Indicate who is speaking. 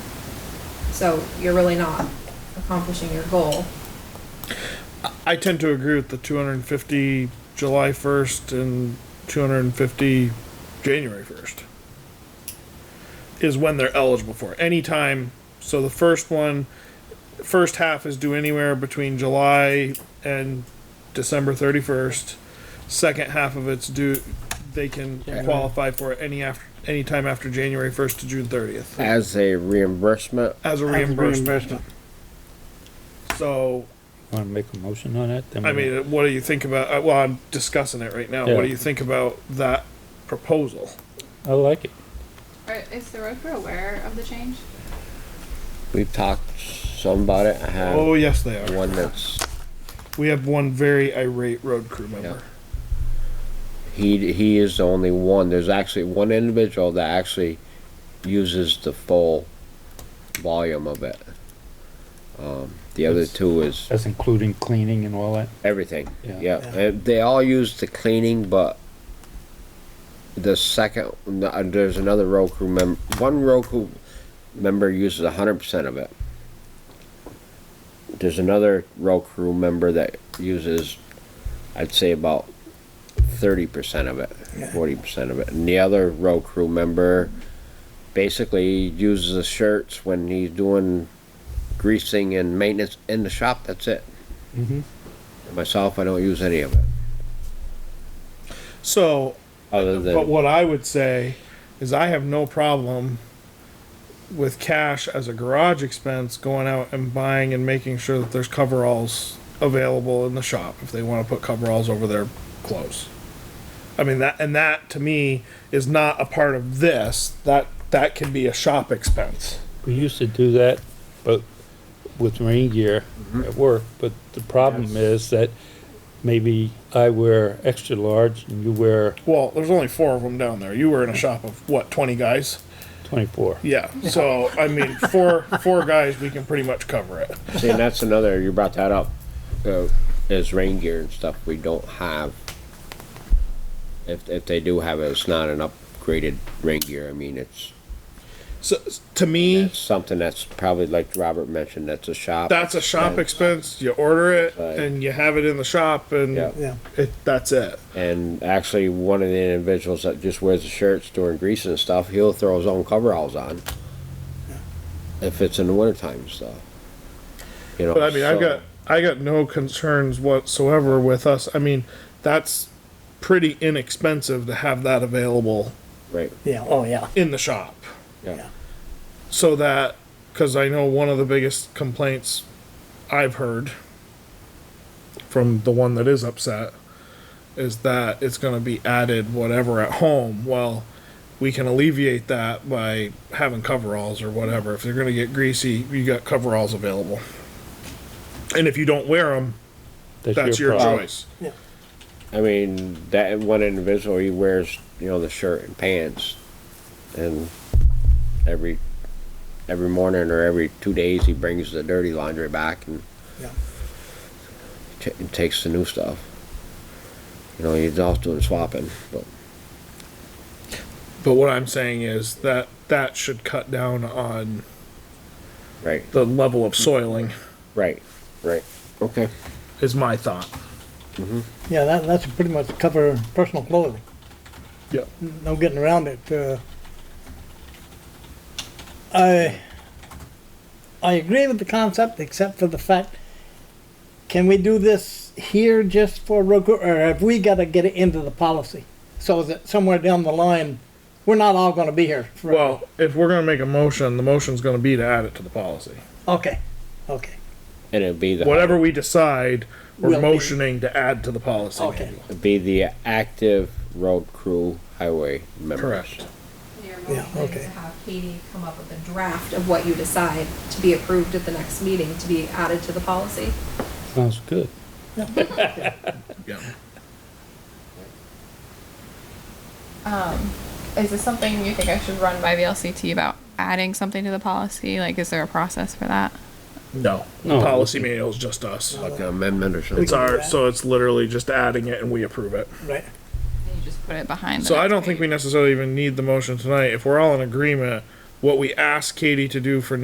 Speaker 1: So you're really not accomplishing your goal.
Speaker 2: I tend to agree with the 250 July 1st and 250 January 1st is when they're eligible for it. anytime. So the first one, first half is due anywhere between July and December 31st. Second half of it's due. They can qualify for it any after any time after January 1st to June 30th
Speaker 3: As a reimbursement,
Speaker 2: as a
Speaker 4: As a
Speaker 2: reimbursement.
Speaker 4: reimbursement.
Speaker 2: So
Speaker 5: Want to make a motion on that?
Speaker 2: I mean, what do you think about? uh, Well, I'm discussing it right now. What do
Speaker 5: Yeah.
Speaker 2: you think about that proposal?
Speaker 5: I like it.
Speaker 6: Are, is the road crew aware of the change?
Speaker 3: we've talked some about it. I have
Speaker 2: Oh, yes, they are.
Speaker 3: Uh, one that's,
Speaker 2: We have one very irate road crew member.
Speaker 3: he, he is the only one. There's actually one individual that actually uses the full volume of it. Um, the other
Speaker 5: That's-
Speaker 3: two is
Speaker 5: That's including cleaning and all that.
Speaker 3: Everything.
Speaker 5: Yeah.
Speaker 3: Yeah. And they all use the cleaning, but the second, no, uh, there's another road crew member. One road crew member uses 100% of it. There's another road crew member that uses, I'd say, about 30% of it, 40% of it. And the other road crew member basically uses the shirts when he's doing greasing and maintenance in the shop. That's it.
Speaker 5: Mm-hmm.
Speaker 3: Myself, I don't use any of it.
Speaker 2: So,
Speaker 3: Other
Speaker 2: but
Speaker 3: than
Speaker 2: what I would say is I have no problem with cash as a garage expense going out and buying and making sure that there's coveralls available in the shop if they want to put coveralls over their clothes. I mean that and that to me is not a part of this. That that can be a shop expense.
Speaker 5: We used to do that, but with rain gear
Speaker 2: Mm-hmm.
Speaker 5: at work, but the problem is that maybe I wear extra large and you wear
Speaker 2: Well, there's only four of them down there. You were in a shop of what, 20 guys?
Speaker 5: twenty-four.
Speaker 2: Yeah. So, I mean, four four guys, we can pretty much cover it.
Speaker 3: see, and that's another. You brought that up. Uh, is rain gear and stuff we don't have. If if they do have it, it's not an upgraded rain gear. I mean, it's,
Speaker 2: So, to me,
Speaker 3: it's something that's probably like Robert mentioned. That's a shop.
Speaker 2: that's a shop expense. You order it
Speaker 3: Right.
Speaker 2: and you have it in the shop, and
Speaker 3: Yeah.
Speaker 4: Yeah.
Speaker 2: it, that's it.
Speaker 3: And actually, one of the individuals that just wears the shirts during grease and stuff, he'll throw his own coveralls on. If it's in the wintertime and stuff. You know.
Speaker 2: But I mean, I've
Speaker 3: Oh, so-
Speaker 2: got I got no concerns whatsoever with us. I mean, that's pretty inexpensive to have that available
Speaker 3: right.
Speaker 4: Yeah, oh, yeah.
Speaker 2: in the shop.
Speaker 3: Yeah.
Speaker 2: so that because I know one of the biggest complaints I've heard from the one that is upset is that it's going to be added whatever at home. Well, we can alleviate that by having coveralls or whatever. If they're going to get greasy, you got coveralls available. And if you don't wear them, that's your
Speaker 5: problem.
Speaker 2: choice.
Speaker 3: I mean, that one individual, he wears, you know, the shirt and pants, and every every morning or every two days, he brings the dirty laundry back and
Speaker 4: Yeah.
Speaker 3: ta- and takes the new stuff. You know, he's off doing swapping, but
Speaker 2: But what I'm saying is that that should cut down on
Speaker 3: right,
Speaker 2: the level of soiling,
Speaker 3: right, right. Okay.
Speaker 2: is my thought.
Speaker 4: Yeah, that, that's pretty much cover personal clothing.
Speaker 2: Yep.
Speaker 4: No getting around it. Uh, I, I agree with the concept, except for the fact, can we do this here just for road crew, or have we gotta get it into the policy? So that somewhere down the line, we're not all gonna be here. for-
Speaker 2: Well, if we're gonna make a motion, the motion's gonna be to add it to the policy.
Speaker 4: Okay, okay,
Speaker 3: And it'd be the
Speaker 2: Whatever we decide, we're
Speaker 4: Will be.
Speaker 2: motioning to add to the policy.
Speaker 4: okay.
Speaker 3: it'd be the active road crew highway members.
Speaker 2: Correct.
Speaker 1: Your
Speaker 4: Yeah,
Speaker 1: motion is
Speaker 4: okay.
Speaker 1: to have Katie come up with a draft of what you decide to be approved at the next meeting to be added to the policy.
Speaker 5: Sounds good.
Speaker 2: Yeah.
Speaker 6: Is this something you think I should run by VLCT about adding something to the policy? Like, is there a process for that?
Speaker 2: No,
Speaker 5: No.
Speaker 2: policy manual's just us.
Speaker 3: Like an amendment or something.
Speaker 2: It's our, so it's literally just adding it and we approve it.
Speaker 4: Right.
Speaker 6: And you just put it behind. the
Speaker 2: So I
Speaker 6: next
Speaker 2: don't think
Speaker 6: page?
Speaker 2: we necessarily even need the motion tonight. If we're all in agreement, what we ask Katie to do for